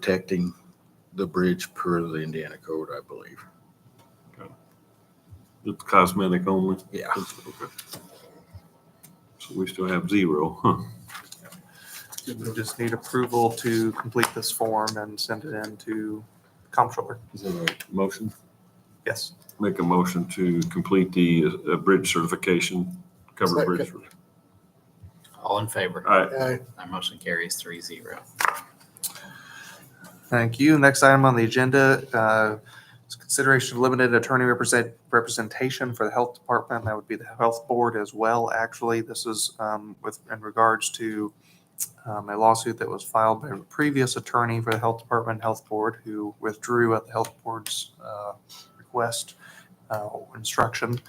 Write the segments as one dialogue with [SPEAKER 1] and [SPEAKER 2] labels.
[SPEAKER 1] protecting the bridge per the Indiana code, I believe.
[SPEAKER 2] It's cosmetic only.
[SPEAKER 1] Yeah.
[SPEAKER 2] Okay. So we still have zero, huh?
[SPEAKER 3] We just need approval to complete this form and send it in to comptroller.
[SPEAKER 2] Is that a motion?
[SPEAKER 3] Yes.
[SPEAKER 2] Make a motion to complete the uh, bridge certification, covered bridge.
[SPEAKER 4] All in favor?
[SPEAKER 2] All right,
[SPEAKER 4] That motion carries three zero.
[SPEAKER 3] Thank you. Next item on the agenda uh, is consideration of limited attorney represent, representation for the health department. That would be the health board as well, actually. This is um, with, in regards to um, a lawsuit that was filed by a previous attorney for the health department, health board, who withdrew at the health board's uh, request, uh, instruction.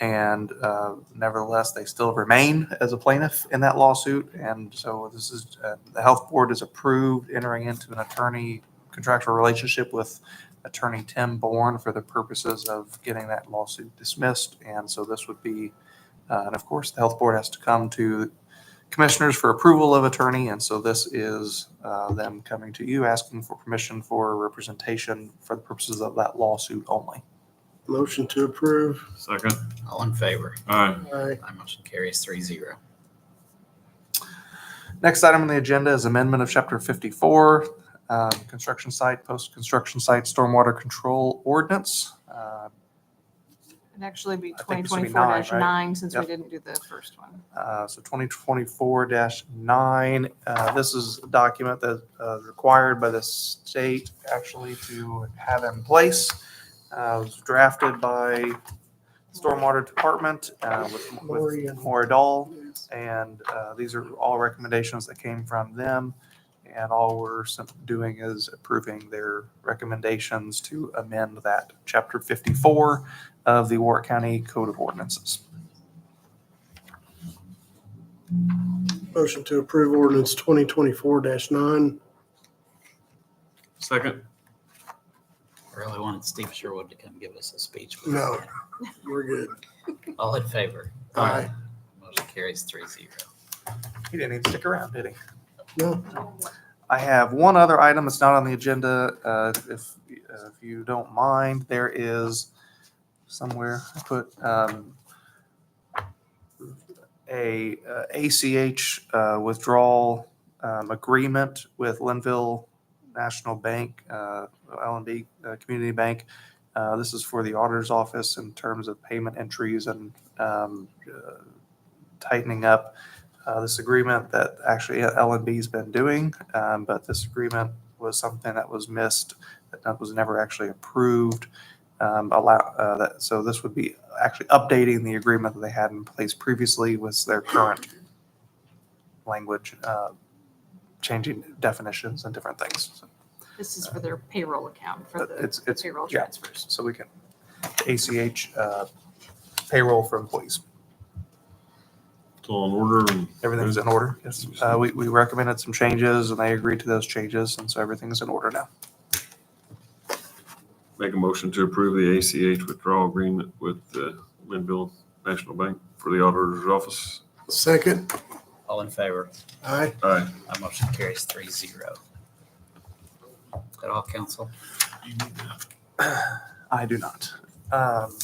[SPEAKER 3] And uh, nevertheless, they still remain as a plaintiff in that lawsuit. And so this is, uh, the health board is approved entering into an attorney contractual relationship with attorney Tim Bourne for the purposes of getting that lawsuit dismissed. And so this would be, uh, and of course, the health board has to come to commissioners for approval of attorney. And so this is uh, them coming to you, asking for permission for representation for the purposes of that lawsuit only.
[SPEAKER 5] Motion to approve.
[SPEAKER 2] second.
[SPEAKER 4] All in favor?
[SPEAKER 2] All right,
[SPEAKER 5] Aye.
[SPEAKER 4] That motion carries three zero.
[SPEAKER 3] Next item on the agenda is amendment of chapter fifty-four, um, construction site, post-construction site, stormwater control ordinance. Uh,
[SPEAKER 6] It'd actually be
[SPEAKER 3] I think
[SPEAKER 6] twenty
[SPEAKER 3] this would be
[SPEAKER 6] twenty-four
[SPEAKER 3] nine, right?
[SPEAKER 6] nine, since we
[SPEAKER 3] Yep.
[SPEAKER 6] didn't do the first one.
[SPEAKER 3] uh, So twenty twenty-four nine, uh, this is a document that uh, is required by the state actually to have in place. Uh, It was drafted by Stormwater Department uh, with
[SPEAKER 5] Lori
[SPEAKER 3] with
[SPEAKER 5] and-
[SPEAKER 3] Moridahl. And uh, these are all recommendations that came from them. And all we're sim- doing is approving their recommendations to amend that chapter 54 of the Warwick County Code of Ordinances.
[SPEAKER 5] Motion to approve ordinance twenty twenty-four nine.
[SPEAKER 2] second.
[SPEAKER 4] I Really wanted Steve Sherwood to come give us a speech. but-
[SPEAKER 5] No. We're good.
[SPEAKER 4] All in favor?
[SPEAKER 5] Aye.
[SPEAKER 4] Motion carries three zero.
[SPEAKER 3] He didn't even stick around, did he?
[SPEAKER 5] No,
[SPEAKER 3] I have one other item that's not on the agenda, uh, if, uh, if you don't mind, there is somewhere, I put, um, a uh, ACH uh, withdrawal, um, agreement with Linville National Bank, uh, LNB, uh, Community Bank. Uh, this is for the auditor's office in terms of payment entries and, um, uh, tightening up uh, this agreement that actually LNB's been doing, um, but this agreement was something that was missed, that was never actually approved. Um, allow, uh, that, so this would be actually updating the agreement that they had in place previously with their current language, uh, changing definitions and different things. So-
[SPEAKER 6] This is for their payroll account, for
[SPEAKER 3] Uh, It's-
[SPEAKER 6] the
[SPEAKER 3] it's-
[SPEAKER 6] payroll
[SPEAKER 3] yeah.
[SPEAKER 6] transfers.
[SPEAKER 3] So we can, ACH, uh, payroll for employees.
[SPEAKER 2] It's all in order and.
[SPEAKER 3] Everything's in order. Yes. Uh, we, we recommended some changes and they agreed to those changes. And so everything's in order now.
[SPEAKER 2] Make a motion to approve the ACH withdrawal agreement with uh, Linville National Bank for the auditor's office.
[SPEAKER 5] second.
[SPEAKER 4] All in favor?
[SPEAKER 5] Aye.
[SPEAKER 2] All right,
[SPEAKER 4] That motion carries three zero. Is that all, council?
[SPEAKER 3] I do not. Um,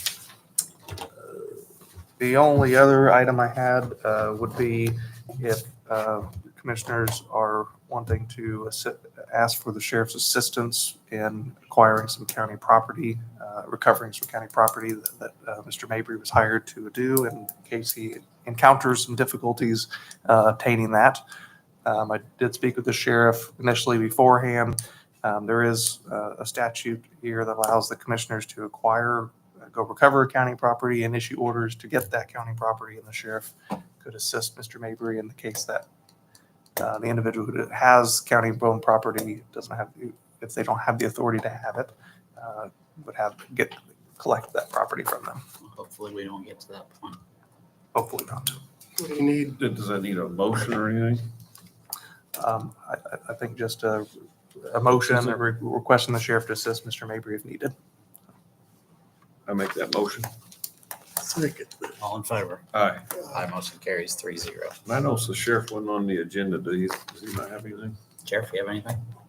[SPEAKER 3] The only other item I had uh, would be if uh, commissioners are wanting to assi- ask for the sheriff's assistance in acquiring some county property, uh, recovering some county property that that, uh, Mr. Mabry was hired to do in case he encounters some difficulties uh, obtaining that. Um, I did speak with the sheriff initially beforehand. Um, There is uh, a statute here that allows the commissioners to acquire, uh, go recover county property and issue orders to get that county property, and the sheriff could assist Mr. Mabry in the case that uh, the individual who has county-owned property doesn't have, the- if they don't have the authority to have it, uh, would have, get, collect that property from them.
[SPEAKER 4] Hopefully, we don't get to that point.
[SPEAKER 3] Hopefully not.
[SPEAKER 5] What do you need?
[SPEAKER 2] does that need a motion or anything?
[SPEAKER 3] Um, I, I- I think just a, a motion re- requesting the sheriff to assist Mr. Mabry if needed.
[SPEAKER 2] I make that motion.
[SPEAKER 5] Second.
[SPEAKER 4] All in favor?
[SPEAKER 2] All right,
[SPEAKER 4] That motion carries three zero.
[SPEAKER 2] and I know the sheriff wasn't on the agenda, does he, does he not have anything?
[SPEAKER 4] Sheriff, you have anything?